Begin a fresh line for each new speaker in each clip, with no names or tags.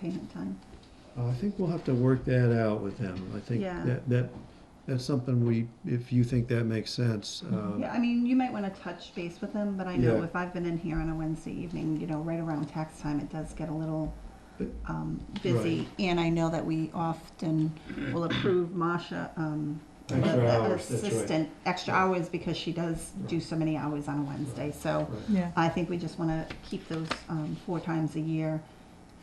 payment time?
Oh, I think we'll have to work that out with them. I think
Yeah.
that, that, that's something we, if you think that makes sense, um,
Mm-hmm. Yeah, I mean, you might wanna touch base with them, but I know
Yeah.
if I've been in here on a Wednesday evening, you know, right around tax time, it does get a little,
But-
um, busy. And I know that we often will approve Masha, um, the-
Extra
the
hours, that's right.
assistant, extra
Right.
hours because she does do
Right.
so many hours on a Wednesday, so
right.
Yeah.
I think we just wanna keep those, um, four times a year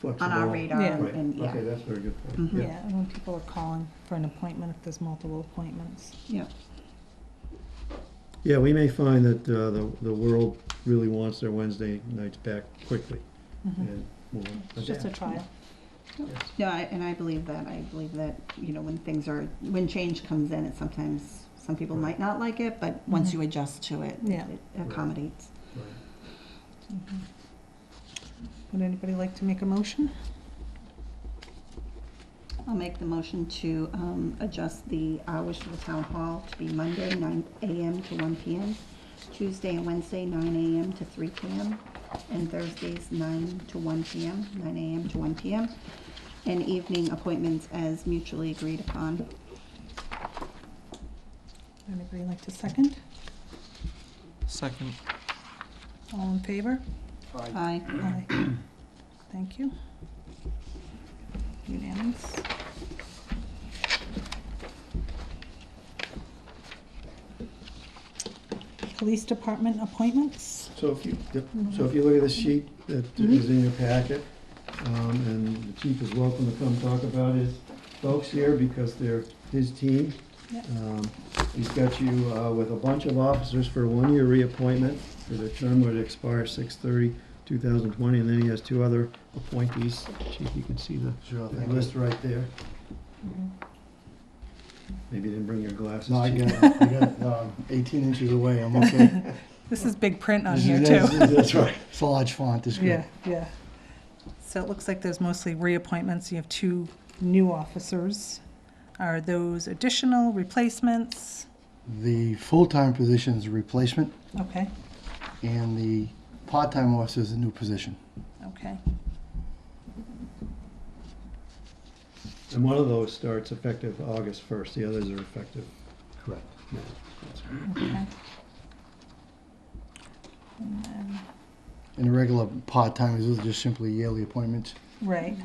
on our
Flexible.
radar
Yeah.
and,
Right,
and, yeah,
okay, that's a very good point.
Mhm.
Yeah, and when people are calling for an appointment, if there's multiple appointments.
yeah,
Yeah, we may find that, uh, the, the world really wants their Wednesday nights back quickly.
Mm-hmm.
Mm-hmm.
Mhm.
and we'll
It's just a
adapt.
trial.
No, I, and I believe that. I believe that, you know, when things are, when change comes in, it sometimes, some people might
Right.
not like it, but once
Mhm.
you adjust to it,
Yeah.
it accommodates.
Right.
Mhm. Would anybody like to make a motion?
I'll make the motion to, um, adjust the hours for the town hall to be Monday, nine AM to one PM, Tuesday and Wednesday, nine AM to three PM, and Thursdays, nine to one PM, nine AM to one PM, and evening appointments as mutually agreed upon.
Anybody like to second?
Second.
All in favor?
Aye.
Aye. Thank you. Unanimous. Police Department appointments?
So if you, yep, so if you look at the sheet that is in your packet, um, and the chief is welcome to come talk about his folks here because they're his team.
Yep.
Um, He's got you uh, with a bunch of officers for a one-year reappointment for the term would expire 6 2020 and then he has two other appointees. Chief, you can see the the
thank you.
list right there. Maybe you didn't bring your glasses.
No, I
Chief.
got it. I got it. Um, 18 inches away. I'm okay.
This is big print on
This
here
is-
too.
this is- That's right. It's a large font. It's
Yeah,
good.
yeah. So it looks like there's mostly reappointments. You have two new officers. Are those additional replacements?
The full-time position is a replacement,
Okay,
and the part-time officer is a new position.
okay.
And one of those starts effective August 1st. The others are effective.
Correct.
now.
Okay. And then-
And the regular part-timers, those are just simply yearly appointments.
Right,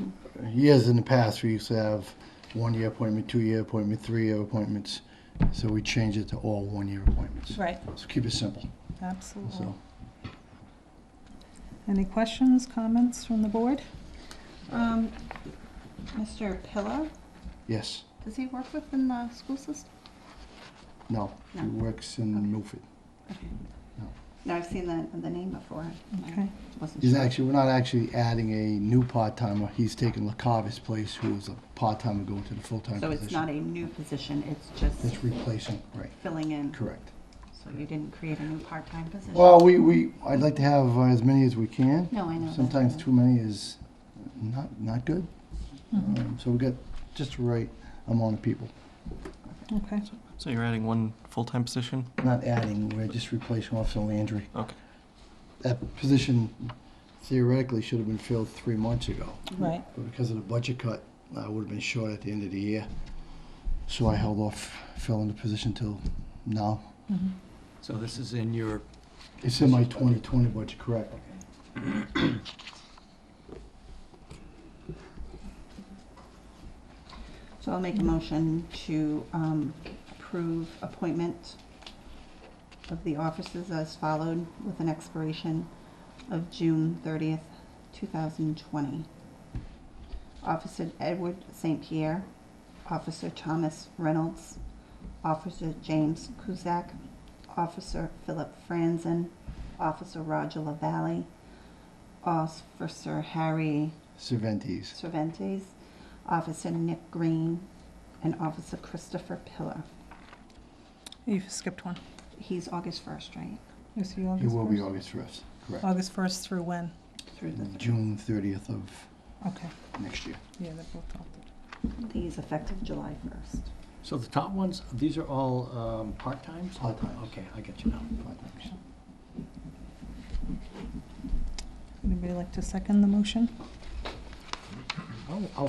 Years in the past, we used to have one-year appointment, two-year appointment, three-year appointments. So we changed it to all one-year appointments.
right, Mm-hmm.
So keep it simple.
absolutely.
So
Any questions, comments from the board?
Um, Mr. Pillar,
yes,
does he work within the school system?
no. He
Mm-hmm.
No.
works in Milford.
Okay.
No.
No, I've seen the, the name before. I
Okay,
wasn't
He's
sure.
actually, we're not actually adding a new part-timer. He's taking LaCava's place, who was a part-timer going to the full-time
So
position.
it's not a new position, it's just
It's replacing, right,
filling in.
correct.
So you didn't create a new part-time position?
Well, we, we, I'd like to have uh, as many as we can.
No, I know. that's
Sometimes
fine.
too many is not, not good.
mm-hmm,
Um, So we got just the right amount of people.
okay.
So you're adding one full-time position?
We're Not adding, we're just replacing Officer Landry.
Okay.
That position theoretically should have been filled three months ago.
Right,
But because of the budget cut, I would have been short at the end of the year. So I held off filling the position till now.
mhm,
So this is in your,
It's in my 2020 budget, correct?
So I'll make a motion to um, approve appointment of the officers as followed with an expiration of June 30th, 2020. Officer Edward St. Pierre, Officer Thomas Reynolds, Officer James Kuzak, Officer Philip Franzen, Officer Roger LaValle, Officer Harry
Cervantes.
Cervantes, Officer Nick Green, and Officer Christopher Pillar.
you skipped one.
He's August 1st, right?
Is he
It
August
will be
1st?
August 1st, correct?
August 1st through when?
Through the,
June 30th of
Okay,
next year.
yeah, they're both altered.
he's effective July 1st.
so the top ones, these are all um, part-times?
Part-times.
Okay, I get you now.
Anybody like to second the motion?
I'll, I'll